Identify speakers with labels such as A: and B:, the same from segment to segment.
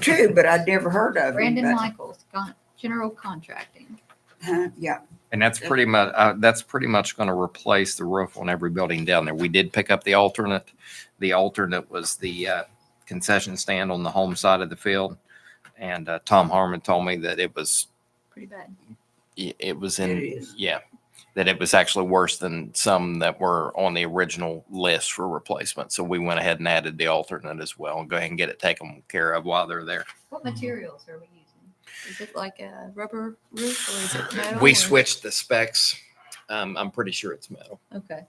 A: too, but I'd never heard of him.
B: Brandon
A: but-
B: Michaels, con- general contracting.
A: Huh, Yeah,
C: And that's pretty much, uh, that's pretty much going to replace the roof on every building down there. We did pick up the alternate. The alternate was the, uh, concession stand on the home side of the field. And, uh, Tom Harmon told me that it was,
B: Pretty bad.
C: it it was
A: it
C: in,
A: is.
C: yeah, that it was actually worse than some that were on the original list for replacement. So we went ahead and added the alternate as well. Go ahead and get it taken care of while they're there.
B: What
D: Mm-hmm.
B: materials are we using? Is it like a rubber roof or is it metal?
C: We
B: or-
C: switched the specs. Um, I'm pretty sure it's metal.
B: Okay.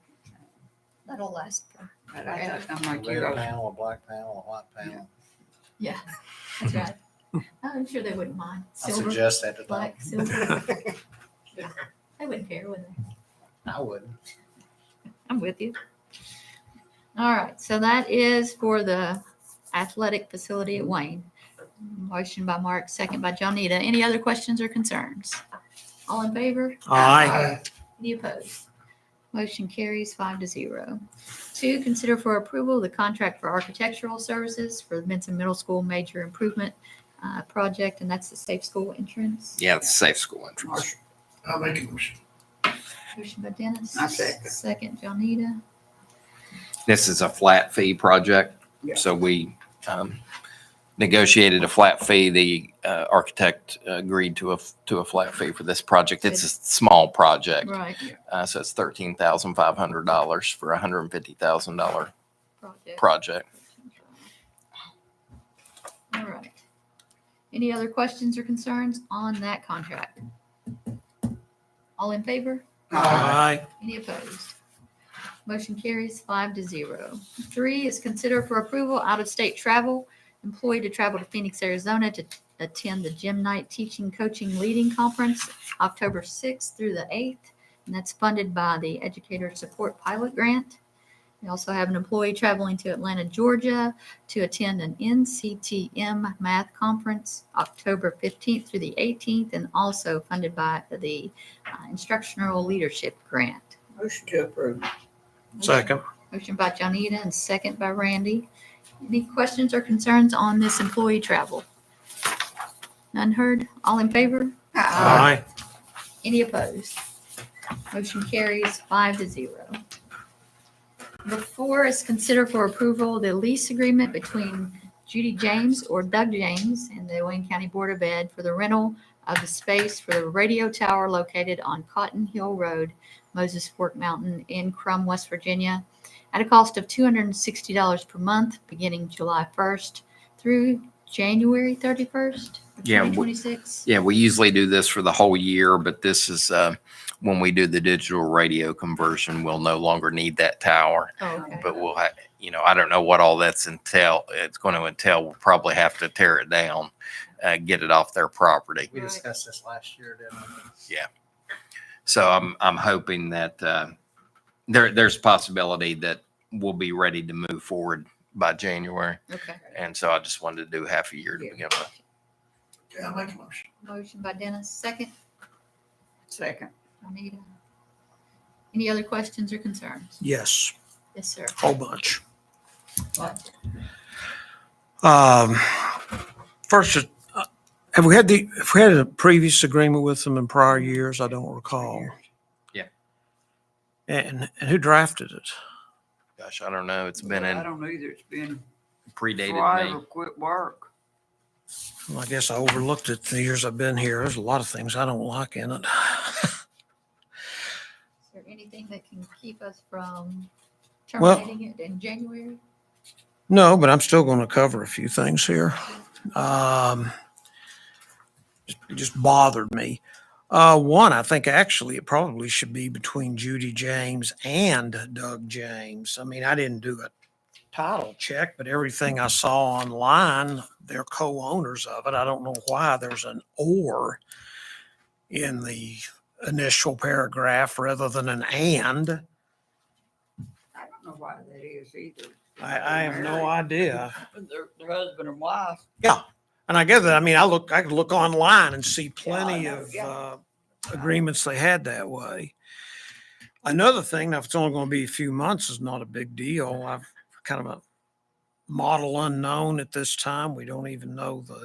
B: That'll last. for-
A: But I thought, I'm
D: A
A: like,
D: red
A: you're all-
D: panel, a black panel, a white panel.
B: Yeah, that's right. I'm sure they wouldn't mind.
D: Mm-hmm. I
B: Silver,
D: suggest that to them.
B: black, silver. Yeah, They wouldn't care, would they?
D: I wouldn't.
B: I'm with you. All right, so that is for the athletic facility at Wayne. Motion by Mark, second by Johnita. Any other questions or concerns? All in favor?
E: Aye.
B: Any opposed? Motion carries five to zero. Two, consider for approval the contract for architectural services for the Benson Middle School Major Improvement uh, Project, and that's the safe school entrance.
C: Yeah, it's safe school entrance.
F: I make a motion.
B: Motion by Dennis.
A: I second.
B: Second, Johnita.
C: This is a flat fee project,
A: Yeah.
C: so we um, negotiated a flat fee. The uh, architect agreed to a, to a flat fee for this project. It's a small project,
B: Right,
C: uh, so it's thirteen thousand five hundred dollars for a hundred and fifty thousand dollar
B: project.
C: project.
B: All right. Any other questions or concerns on that contract? All in favor?
A: Uh,
B: Any opposed? Motion carries five to zero. Three is consider for approval out-of-state travel, employee to travel to Phoenix, Arizona to attend the Gym Night Teaching Coaching Leading Conference, October 6th through the 8th, and that's funded by the Educator Support Pilot Grant. We also have an employee traveling to Atlanta, Georgia to attend an NCTM Math Conference, October 15th through the 18th, and also funded by the uh, Instructional Leadership Grant.
A: Motion to approve.
E: Second.
B: Motion by Johnita and second by Randy. Any questions or concerns on this employee travel? None heard? All in favor?
A: Uh,
E: Aye.
B: Any opposed? Motion carries five to zero. Number four is consider for approval the lease agreement between Judy James or Doug James and the Wayne County Board of Ed for the rental of the space for the radio tower located on Cotton Hill Road, Moses Fork Mountain in Crum, West Virginia, at a cost of two hundred and sixty dollars per month, beginning July first through January thirty-first of
C: Yeah,
B: twenty
C: we-
B: twenty-six.
C: Yeah, we usually do this for the whole year, but this is uh, when we do the digital radio conversion, we'll no longer need that tower.
B: Oh, Okay.
C: but we'll have, you know, I don't know what all that's entail, it's going to entail. We'll probably have to tear it down, uh, get it off their property.
D: We
B: Right.
D: discussed this last year, didn't we?
C: So I'm, I'm hoping that, uh, there, there's possibility that we'll be ready to move forward by January.
B: Okay.
C: And so I just wanted to do half a year to
A: Yeah.
C: begin with.
F: Yeah, I make a motion.
B: Motion by Dennis, second,
A: Second.
B: Juanita. Any other questions or concerns?
E: Yes,
B: Yes, sir.
E: whole bunch.
B: What?
E: Um, first, is- uh, have we had the, have we had a previous agreement with them in prior years? I don't recall. And, and who drafted it?
C: Gosh, I don't know. It's been
A: I
C: in
A: don't know either. It's been
C: predated
A: forever,
C: me.
A: quit work.
E: Well, I guess I overlooked it the years I've been here. There's a lot of things I don't like in it.
B: Is there anything that can keep us from
E: Well-
B: terminating it in January?
E: No, but I'm still going to cover a few things here. Um, just- it just bothered me. Uh, one, I think actually it probably should be between Judy James and Doug James. I mean, I didn't do a title check, but everything I saw online, they're co-owners of it. I don't know why there's an or in the initial paragraph rather than an and.
A: I don't know why that is either.
E: I, I have no idea.
A: Their, their husband and wife.
E: And I get that. I mean, I look, I could look online and see plenty
A: know,
E: of
A: yeah.
E: uh, agreements they had that way. Another thing, now if it's only going to be a few months, is not a big deal. I've kind of a model unknown at this time. We don't even know the